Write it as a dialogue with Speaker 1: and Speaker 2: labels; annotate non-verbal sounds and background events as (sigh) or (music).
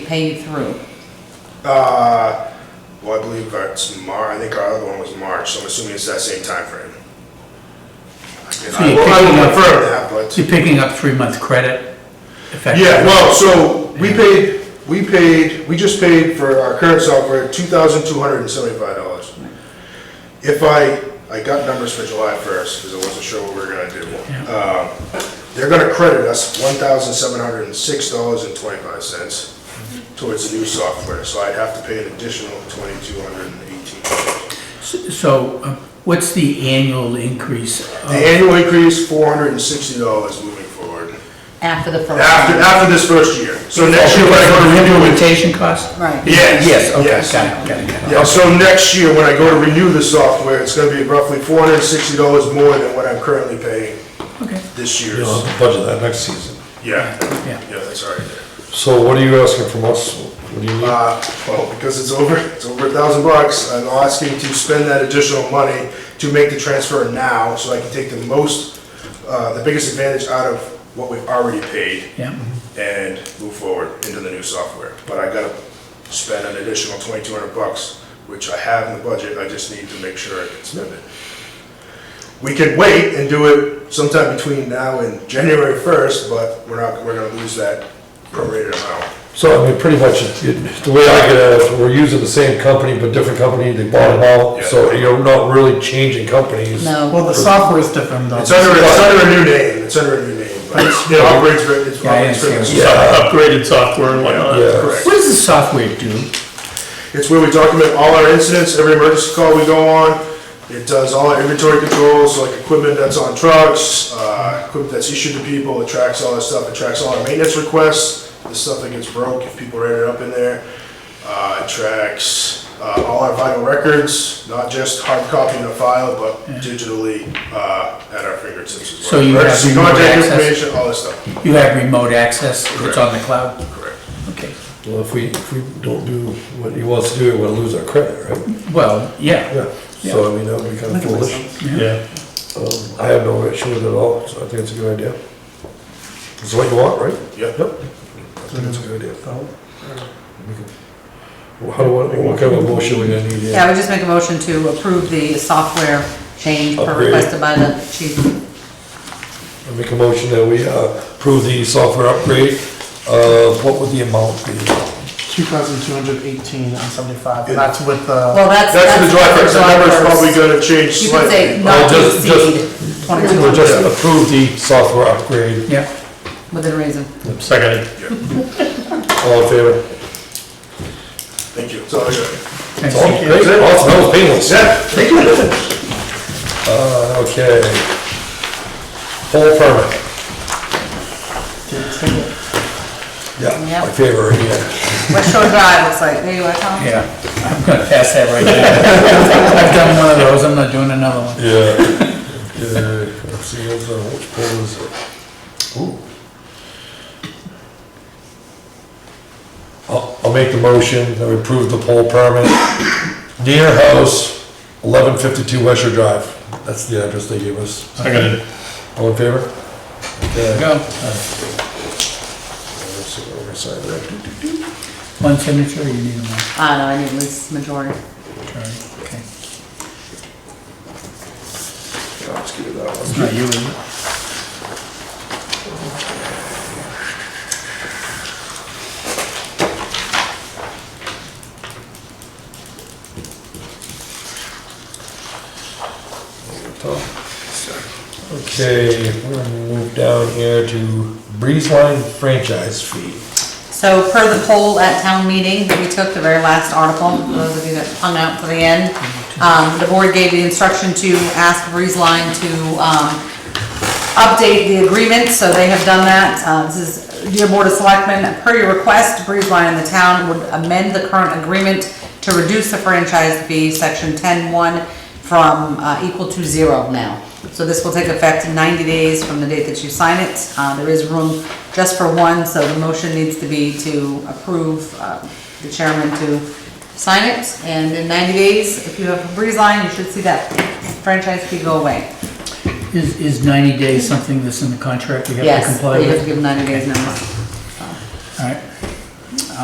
Speaker 1: pay you through?
Speaker 2: Uh, well, I believe it's Mar, I think our other one was March, so I'm assuming it's that same timeframe. I will- I will confirm that, but.
Speaker 3: You're picking up three-month credit effectively.
Speaker 2: Yeah, well, so we paid, we paid, we just paid for our current software, two thousand two hundred and seventy-five dollars. If I, I got numbers for July first, because I wasn't sure what we were gonna do. Um, They're gonna credit us one thousand seven hundred and six dollars and twenty-five cents towards the new software, so I'd have to pay an additional twenty-two hundred and eighteen dollars.
Speaker 3: So uh, what's the annual increase?
Speaker 2: The annual increase, four hundred and sixty dollars moving forward,
Speaker 1: After the first?
Speaker 2: after, after this first year. So next year, when I go to
Speaker 3: the
Speaker 2: renew it,
Speaker 3: Implementation cost?
Speaker 1: Right.
Speaker 2: Yes.
Speaker 3: Yes, okay,
Speaker 2: yes.
Speaker 3: got it, got it, got it.
Speaker 2: Yeah, so next year, when I go to renew the software, it's gonna be roughly four hundred and sixty dollars more than what I'm currently paying
Speaker 3: Okay,
Speaker 2: this year's.
Speaker 4: You'll have to budget that next season.
Speaker 2: Yeah,
Speaker 3: Yeah.
Speaker 2: yeah, that's all right there.
Speaker 4: So what are you asking from us? What do you need?
Speaker 2: Uh, well, because it's over, it's over a thousand bucks, I'm asking to spend that additional money to make the transfer now, so I can take the most, uh, the biggest advantage out of what we've already paid
Speaker 3: yeah.
Speaker 2: and move forward into the new software. But I gotta spend an additional twenty-two hundred bucks, which I have in the budget, I just need to make sure I can spend it. We could wait and do it sometime between now and January first, but we're not, we're gonna lose that prorated amount.
Speaker 4: So I mean, pretty much, it- it- the way I get at it, we're using the same company, but different company, they bought it out, so you're not really changing companies.
Speaker 1: No,
Speaker 5: Well, the software is different though.
Speaker 2: It's under, it's under a new name, it's under a new name, but it's, you know, operates, very- it's.
Speaker 3: Yeah, I
Speaker 2: operates very-
Speaker 3: understand.
Speaker 4: Yeah,
Speaker 5: Upgraded software and whatnot.
Speaker 4: yeah.
Speaker 2: Correct.
Speaker 3: What does the software do?
Speaker 2: It's where we document all our incidents, every emergency call we go on. It does all our inventory controls, like equipment that's on trucks, uh, equipment that's issued to people, it tracks all that stuff, it tracks all our maintenance requests, the stuff that gets broke if people ran it up in there. Uh, It tracks uh, all our vital records, not just hard copy in a file, but digitally uh, at our fingertips as well.
Speaker 3: So you have
Speaker 2: Emergency
Speaker 3: remote
Speaker 2: contact
Speaker 3: access?
Speaker 2: information, all this stuff,
Speaker 3: You have remote access, it's on the cloud?
Speaker 2: correct.
Speaker 3: Okay,
Speaker 4: Well, if we, if we don't do what he wants to do, we're gonna lose our credit, right?
Speaker 3: well, yeah.
Speaker 4: Yeah, so I mean, that would be kind of foolish.
Speaker 5: Yeah.
Speaker 4: Um, I have no issue with it at all, so I think it's a good idea. It's what you want, right?
Speaker 2: Yep.
Speaker 4: Yep. I think it's a good idea. We can- Well, How do I, what kind of motion we gonna need?
Speaker 1: yeah, I would just make a motion to approve the software change per
Speaker 4: Upgrade.
Speaker 1: requested by the chief.
Speaker 4: I make a motion that we uh, approve the software upgrade. Uh, What would the amount be?
Speaker 5: Two thousand two hundred eighteen and seventy-five, and that's with uh, the,
Speaker 1: Well, that's.
Speaker 2: That's the July 1st, that
Speaker 1: July
Speaker 2: number's
Speaker 1: 1st.
Speaker 2: probably gonna change
Speaker 1: You could say
Speaker 2: slightly.
Speaker 1: not to
Speaker 4: just- just-
Speaker 1: exceed
Speaker 4: We'll just
Speaker 1: 2200,
Speaker 4: approve the software upgrade.
Speaker 3: Yeah,
Speaker 1: within reason.
Speaker 5: second,
Speaker 4: All in favor?
Speaker 2: Thank you, that's all I got.
Speaker 3: thanks.
Speaker 4: Oh, great. Awesome, that was painless.
Speaker 2: Yeah, thank you.
Speaker 4: Uh, Okay. Whole permit.
Speaker 5: did take it.
Speaker 4: Yeah,
Speaker 1: Yep.
Speaker 4: my favorite, yeah.
Speaker 1: West Shore Drive looks like, there you are, Tom.
Speaker 3: Yeah, I'm gonna pass that right now. (laughs) I've done one of those, I'm not doing another one.
Speaker 4: Yeah. Yeah, let's see, what's, uh, which pole is it? Ooh. I'll, I'll make the motion that we approve the pole permit. Near house, eleven fifty-two West Shore Drive. That's the address they gave us.
Speaker 5: Second.
Speaker 4: All in favor? Okay.
Speaker 3: Go,
Speaker 4: Let's see what we're gonna sign there.
Speaker 3: one signature, you need one.
Speaker 1: I don't know, I need at least majority.
Speaker 3: Okay.
Speaker 4: Yeah, Let's give it that one.
Speaker 3: It's not you, is it?
Speaker 4: Okay, we're gonna move down here to Breeze Line franchise fee.
Speaker 1: So per the poll at town meeting that we took, the very last article, for those of you that hung out to the end, um, the board gave the instruction to ask Breeze Line to, um, update the agreement, so they have done that. Uh, This is, dear Board of Selectmen, per your request, Breeze Line and the town would amend the current agreement to reduce the franchise fee, section ten-one, from uh, equal to zero now. So this will take effect in ninety days from the date that you sign it. Uh, There is room just for one, so the motion needs to be to approve uh, the chairman to sign it. And in ninety days, if you have a Breeze Line, you should see that franchise fee go away.
Speaker 3: Is, is 90 days something that's in the contract we have to
Speaker 1: Yes,
Speaker 3: comply
Speaker 1: they have to
Speaker 3: with?
Speaker 1: give 90 days notice.